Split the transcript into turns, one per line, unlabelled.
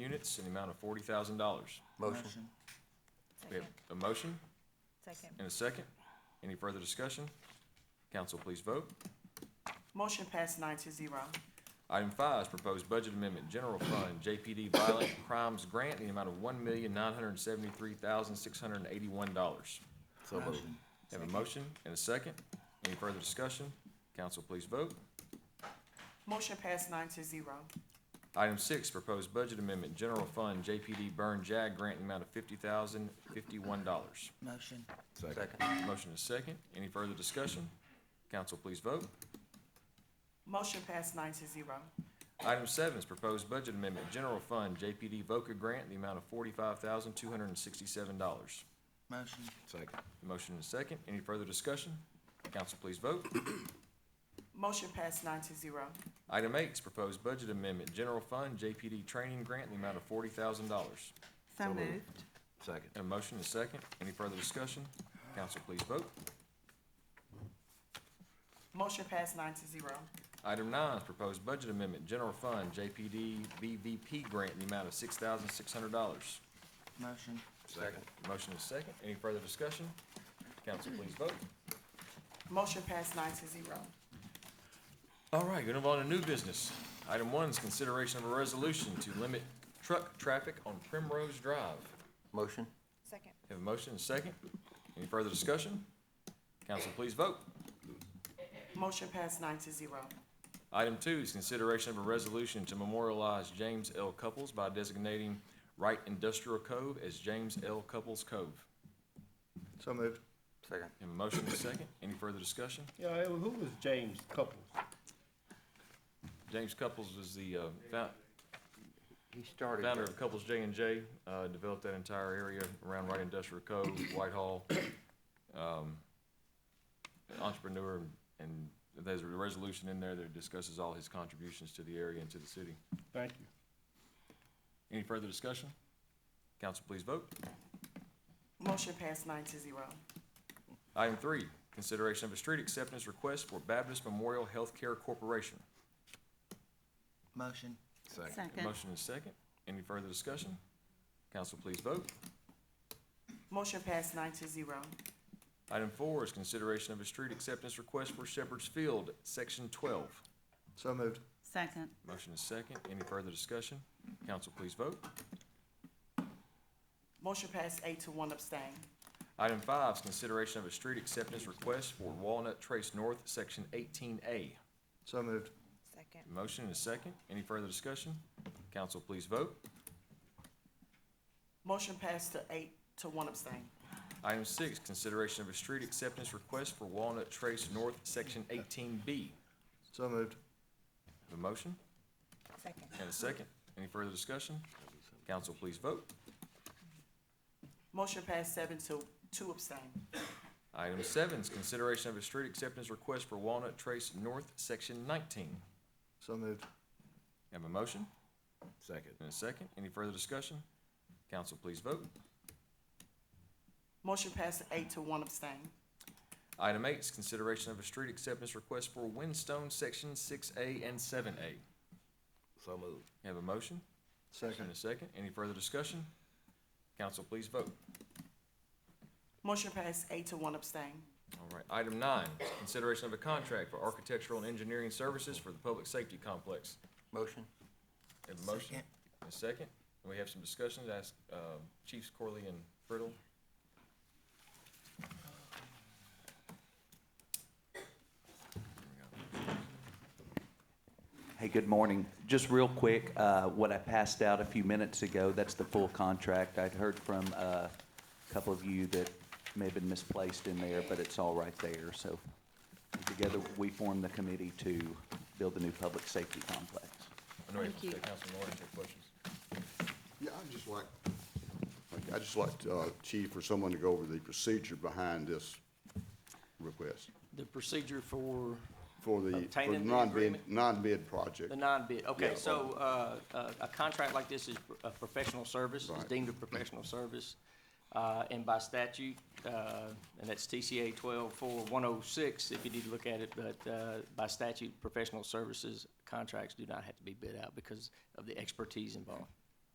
certificates in the amount of forty thousand dollars.
Motion.
We have
Second.
a motion
Second.
and a second. Any further discussion? Council, please vote.
Motion passed nine to zero.
Item five is proposed budget amendment, general fund, JPD violent crimes grant, in the amount of one million nine hundred and seventy-three thousand six hundred and eighty-one dollars.
So moved.
Have a motion and a second. Any further discussion? Council, please vote.
Motion passed nine to zero.
Item six, proposed budget amendment, general fund, JPD burn jag grant, in the amount of fifty thousand fifty-one dollars.
Motion.
Second.
Motion is second. Any further discussion? Council, please vote.
Motion passed nine to zero.
Item seven is proposed budget amendment, general fund, JPD VOCA grant, in the amount of forty-five thousand, two hundred and sixty-seven dollars.
Motion.
Second.
Motion is second. Any further discussion? Council, please vote.
Motion passed nine to zero.
Item eight is proposed budget amendment, general fund, JPD training grant, in the amount of forty thousand dollars.
So moved.
Second.
A motion is second. Any further discussion? Council, please vote.
Motion passed nine to zero.
Item nine is proposed budget amendment, general fund, JPD BVP grant, in the amount of six thousand, six hundred dollars.
Motion.
Second.
Motion is second. Any further discussion? Council, please vote.
Motion passed nine to zero.
All right, gonna move on to new business. Item one is consideration of a resolution to limit truck traffic on Primrose Drive.
Motion.
Second.
Have a motion and a second. Any further discussion? Council, please vote.
Motion passed nine to zero.
Item two is consideration of a resolution to memorialize James L. Couples by designating Wright Industrial Cove as James L. Couples Cove.
So moved.
Second.
Have a motion and a second. Any further discussion?
Yeah, who was James Couples?
James Couples was the, uh, found,
He started.
Founder of Couples J and J, uh, developed that entire area around Wright Industrial Cove, Whitehall. Um, Entrepreneur, and there's a resolution in there that discusses all his contributions to the area and to the city.
Thank you.
Any further discussion? Council, please vote.
Motion passed nine to zero.
Item three, consideration of a street acceptance request for Baptist Memorial Healthcare Corporation.
Motion.
Second.
Motion is second. Any further discussion? Council, please vote.
Motion passed nine to zero.
Item four is consideration of a street acceptance request for Shepherd's Field, Section twelve.
So moved.
Second,
Motion is second. Any further discussion? Council, please vote.
Motion passed eight to one abstain.
Item five is consideration of a street acceptance request for Walnut Trace North, Section eighteen A.
So moved.
Second.
Motion is second. Any further discussion? Council, please vote.
Motion passed to eight to one abstain.
Item six, consideration of a street acceptance request for Walnut Trace North, Section eighteen B.
So moved.
A motion
Second.
and a second. Any further discussion? Council, please vote.
Motion passed seven to two abstain.
Item seven is consideration of a street acceptance request for Walnut Trace North, Section nineteen.
So moved.
Have a motion?
Second.
And a second, any further discussion? Council, please vote.
Motion passed eight to one abstain.
Item eight is consideration of a street acceptance request for Windstone Section six A and seven A.
So moved.
Have a motion?
Second.
And a second, any further discussion? Council, please vote.
Motion passed eight to one abstain.
All right, item nine, is consideration of a contract for architectural and engineering services for the public safety complex.
Motion.
Have a motion?
Second.
And a second, and we have some discussions, ask, uh, Chiefs Corley and Brittle.
Hey, good morning. Just real quick, uh, what I passed out a few minutes ago, that's the full contract. I'd heard from uh, a couple of you that may have been misplaced in there, but it's all right there. So together, we formed the committee to build the new public safety complex.
I know you have
Thank you.
Councilman Lawrence had questions.
Yeah, I'd just like, I'd just like, uh, Chief, or someone to go over the procedure behind this request
The procedure for
for the, for the
Obtaining the
non-bid,
agreement?
non-bid project.
the non-bid, okay,
Yeah.
so, uh, uh, a contract like this is a professional service, it's
Right.
deemed a professional service. Uh, and by statute, uh, and that's TCA twelve four one oh six, if you need to look at it, but, uh, by statute, professional services contracts do not have to be bid out because of the expertise involved.